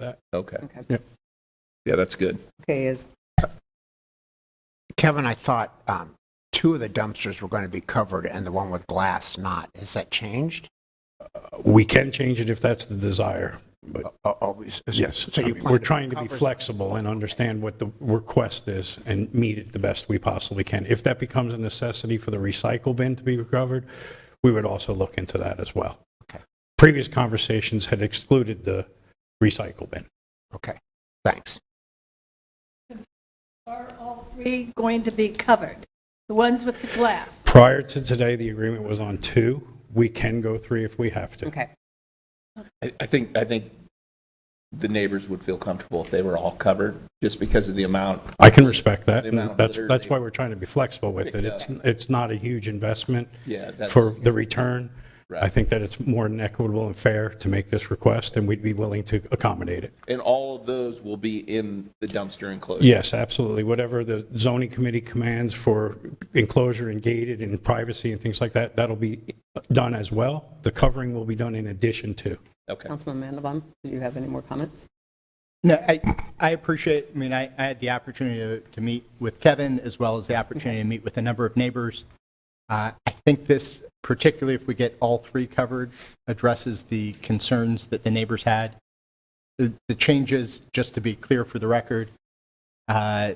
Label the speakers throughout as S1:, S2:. S1: that.
S2: Okay.
S3: Okay.
S1: Yep.
S2: Yeah, that's good.
S3: Okay, is,
S4: Kevin, I thought um, two of the dumpsters were going to be covered and the one with glass not. Has that changed?
S1: We can change it if that's the desire, but
S4: Oh, oh, s- s-
S1: yes.
S4: So
S1: I
S4: you
S1: mean,
S4: plan
S1: We're trying to be
S4: cover-
S1: flexible and understand what the request is and meet it the best we possibly can. If that becomes a necessity for the recycle bin to be recovered, we would also look into that as well.
S4: Okay.
S1: Previous conversations had excluded the recycle bin.
S4: Okay, thanks.
S5: Are all three going to be covered? The ones with the glass?
S1: Prior to today, the agreement was on two. We can go three if we have to.
S3: okay,
S2: I, I think, I think the neighbors would feel comfortable if they were all covered, just because of the amount.
S1: I can respect that.
S2: The amount of
S1: That's,
S2: litter
S1: that's
S2: they-
S1: why we're trying to be flexible with it. It's, it's not a huge investment
S2: Yeah, that's.
S1: for the return. I
S2: Right.
S1: think that it's more than equitable and fair to make this request, and we'd be willing to accommodate it.
S2: And all of those will be in the dumpster enclosure.
S1: Yes, absolutely. Whatever the zoning committee commands for enclosure and gated and privacy and things like that, that'll be done as well. The covering will be done in addition to.
S2: Okay.
S3: Councilman Mandelbaum, do you have any more comments?
S6: No, I, I appreciate, I mean, I, I had the opportunity to, to meet with Kevin as well as the opportunity to meet with a number of neighbors. Uh, I think this, particularly if we get all three covered, addresses the concerns that the neighbors had. The, the changes, just to be clear for the record, uh,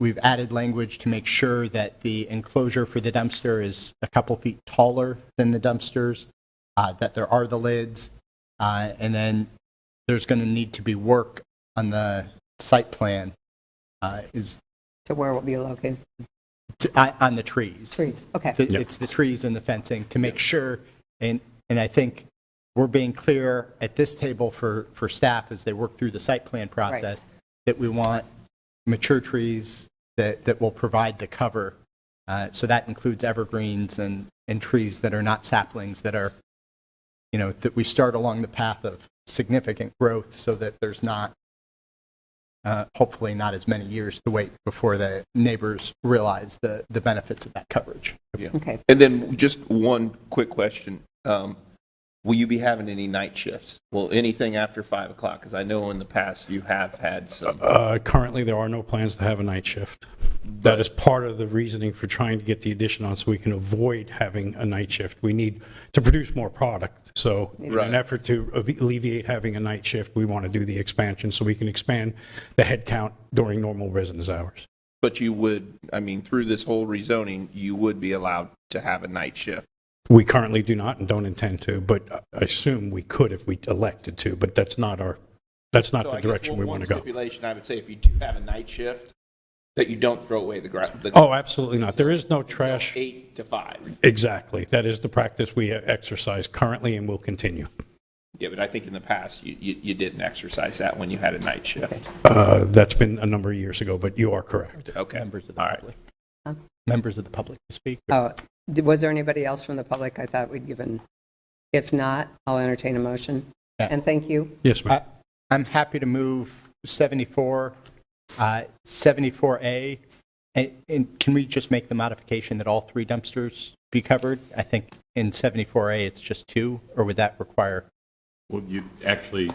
S6: we've added language to make sure that the enclosure for the dumpster is a couple feet taller than the dumpsters, uh, that there are the lids, uh, and then there's going to need to be work on the site plan uh, is,
S3: So where will be located?
S6: to- on on the trees.
S3: Trees, okay.
S6: Th- It's the trees and the fencing to make sure, and, and I think we're being clear at this table for, for staff as they work through the site plan process, that we want mature trees that, that will provide the cover. Uh, So that includes evergreens and, and trees that are not saplings, that are, you know, that we start along the path of significant growth so that there's not, uh, hopefully not as many years to wait before the neighbors realize the, the benefits of that coverage.
S3: Okay,
S2: And then just one quick question. Um, Will you be having any night shifts? Well, anything after 5 o'clock? Because I know in the past you have had some.
S1: Uh, Currently, there are no plans to have a night shift. That is part of the reasoning for trying to get the addition on, so we can avoid having a night shift. We need to produce more product, so in
S2: Right.
S1: an effort to alleviate having a night shift, we want to do the expansion, so we can expand the headcount during normal business hours.
S2: But you would, I mean, through this whole rezoning, you would be allowed to have a night shift.
S1: We currently do not and don't intend to, but I assume we could if we elected to, but that's not our, that's not
S2: So I
S1: the
S2: guess
S1: direction
S2: one-
S1: we want to
S2: One
S1: go.
S2: stipulation I would say, if you do have a night shift, that you don't throw away the gra- the
S1: Oh, absolutely not. There is no
S2: till
S1: trash.
S2: Eight to five.
S1: Exactly. That is the practice we exercise currently and will continue.
S2: Yeah, but I think in the past, you, you, you didn't exercise that when you had a night shift.
S1: Uh, That's been a number of years ago, but you are correct.
S2: Okay.
S6: Members of the
S2: All right.
S6: public.
S3: Huh?
S6: Members of the public to speak.
S3: oh, d- was there anybody else from the public I thought we'd given? If not, I'll entertain a motion.
S6: Yeah.
S3: And thank you.
S1: Yes, ma'am.
S6: I- I'm happy to move 74, uh, 74A, and- and can we just make the modification that all three dumpsters be covered? I think in 74A, it's just two, or would that require?
S7: Well, you actually,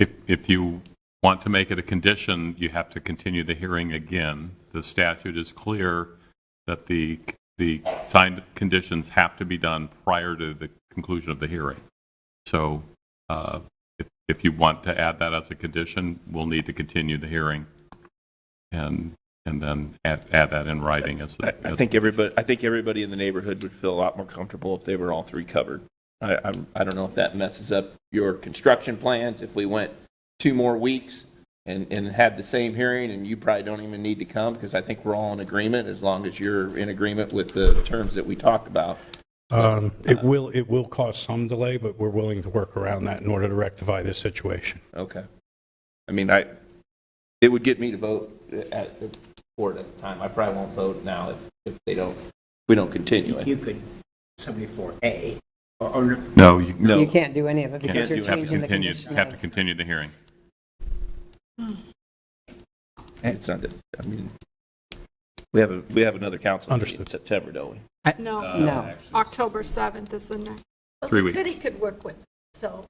S7: if, if you want to make it a condition, you have to continue the hearing again. The statute is clear that the, the signed conditions have to be done prior to the conclusion of the hearing. So uh, if, if you want to add that as a condition, we'll need to continue the hearing and, and then add, add that in writing as.
S2: I, I think everybody, I think everybody in the neighborhood would feel a lot more comfortable if they were all three covered. I, I, I don't know if that messes up your construction plans, if we went two more weeks and, and had the same hearing, and you probably don't even need to come, because I think we're all in agreement, as long as you're in agreement with the terms that we talked about.
S1: Um, It will, it will cause some delay, but we're willing to work around that in order to rectify this situation.
S2: Okay. I mean, I, it would get me to vote at, for it at the time. I probably won't vote now if, if they don't, we don't continue it.
S4: could, 74A, or
S7: No, you.
S2: No.
S3: You can't do any of it
S2: Can't
S3: because you're
S2: do it. Have to
S3: changing the
S7: Continue-
S3: condition.
S7: Have to
S3: of-
S7: continue the hearing.
S2: It's not that, I mean, we have, a we have another council meeting in
S1: Understood.
S2: September, don't we? Uh,
S8: No,
S3: No,
S8: October 7th is the next.
S5: But
S7: Three
S5: the
S7: weeks.
S5: city could work with it, so